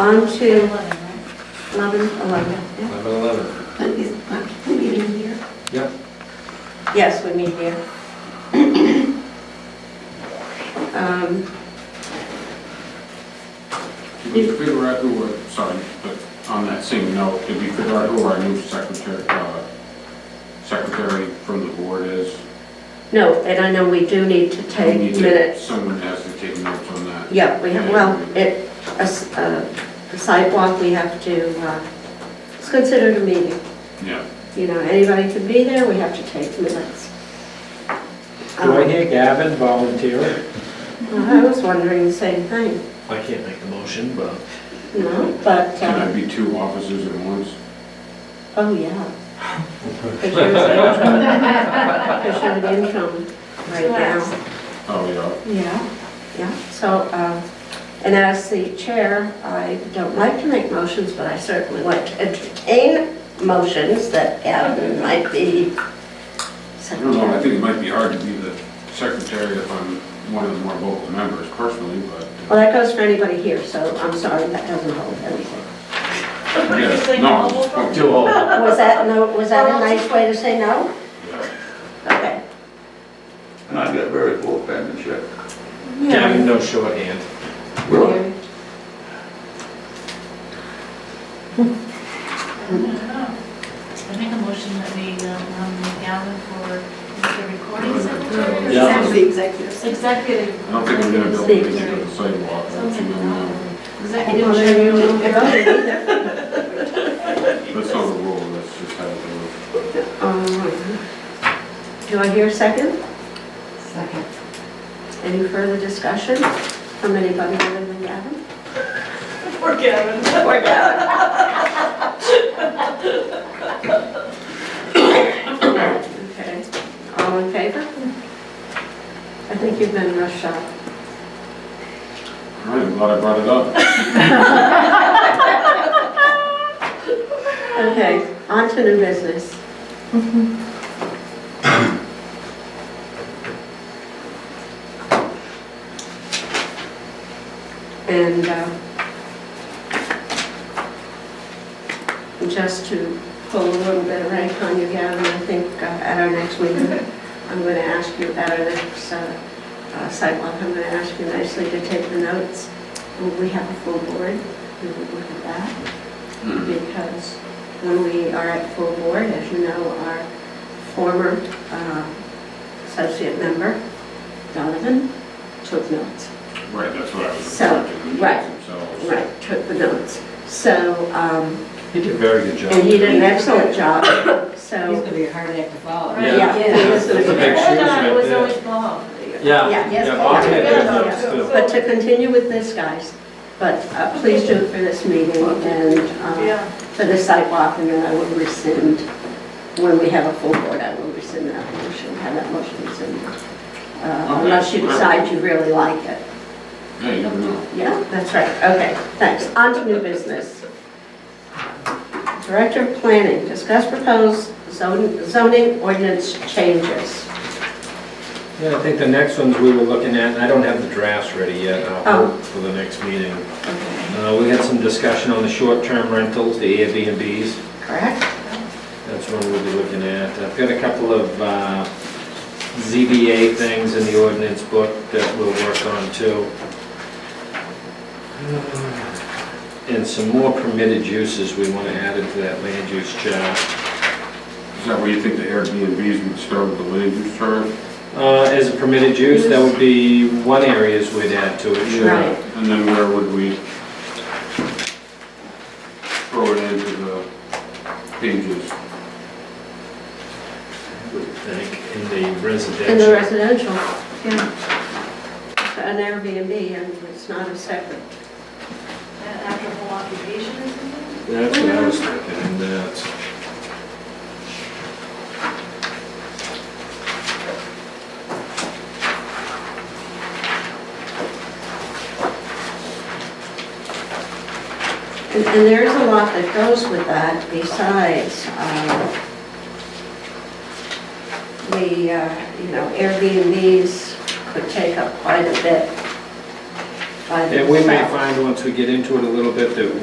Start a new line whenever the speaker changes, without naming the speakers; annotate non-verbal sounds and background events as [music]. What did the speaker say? On to
Eleven, right?
11, 11, yeah.
11:11.
Let me- uh, Can we meet in here?
Yep.
Yes, we meet here. Um,
Did we figure out who were, sorry, but on that same note, did we figure out who our new secretary, uh, secretary from the board is?
No, and I know we do need to
We
take
need to-
minutes.
Someone has to take notes on that.
Yeah, we have, well, it, a s- a sidewalk, we have to, uh, it's considered a meeting.
Yeah,
You know, anybody can be there, we have to take minutes.
Do I
Um,
hear Gavin volunteering?
I was wondering the same thing,
I can't make the motion, but
you know, but,
can
uh,
that be two officers at once?
oh, [laughs] yeah. Because you're the interim right now.
Oh, yeah,
Yeah, yeah, so, um, and as the chair, I don't like to make motions, but I certainly like to entertain motions that Gavin might be
I don't know, I
secretary.
think it might be hard to be the secretary if I'm one of the more vocal members personally, but,
Well, that goes for anybody here, so I'm sorry, that doesn't hold anything.
yes, no.
do all.
Was that, no, was that a nice way to say no? Okay.
And I've got very poor penmanship.
Gavin, no shorthand.
Really?
I make a motion that we um, nominate Gavin for the recording secretary.
Yeah.
Executive-
the executive.
Executive.
I don't think I'm gonna be able to make it on the sidewalk, I don't
Sounds like
think I'm,
Gavin.
I didn't
Executive.
know you were voting either.
that's not a rule, that's just how it goes.
Um, Do I hear a second?
Second.
Any further discussion from anybody other than Gavin?
[laughs] Poor Gavin.
Or
[laughs]
Gavin? Okay, all in favor? I think you've been rushed out.
All right, I'm glad I brought
[laughs]
it up.
Okay, on to new business. And uh, just to pull a little bit of rank on you, Gavin, I think uh, at our next meeting, I'm going to ask you, at our next uh, uh, sidewalk, I'm going to ask you nicely to take the notes. We have a full board, we would look at that because when we are at full board, as you know, our former uh, associate member, Donovan, took notes.
Right, that's what I was.
So,
expecting, the
right,
meetings themselves.
Right, took the notes. So, um,
He did a very good job.
and he did an excellent job, so,
be a hard act to follow.
Yeah.
yeah.
That's a big shoes
It
right
was
there.
always Bob.
Yeah,
Yeah.
yeah, Bob had good notes too.
But to continue with this, guys, but uh, please do it for this meeting and uh, for the sidewalk, and then I will rescind, when we have a full board, I will rescind that motion, have that motion rescinded. Uh, Unless you decide you really like it.
Yeah, you never know.
Yeah, that's right, okay, thanks. On to new business. Director of Planning, discuss proposed zon- zoning ordinance changes.
Yeah, I think the next ones we were looking at, and I don't have the drafts ready yet,
Oh.
I'll hold for the next meeting.
Okay,
Uh, we had some discussion on the short-term rentals, the Airbnbs,
Correct?
that's one we'll be looking at. I've got a couple of, uh, ZBA things in the ordinance book that we'll work on too. Uh, And some more permitted uses we wanna add into that land use chart.
Is that where you think the Airbnbs would start with the land use chart?
Uh, As a permitted use, that would be one areas we'd add to it, sure.
Right.
And then where would we throw it into the pages?
I think in the
In the
residential.
residential, yeah. An Airbnb, and it's not a separate.
After a whole occupation or something?
That's what I was thinking, and uh, that's.
And and there is a lot that goes with that besides, um, the, uh, you know, Airbnbs could take up quite a bit by the.
And we may
South.
find, once we get into it a little bit, that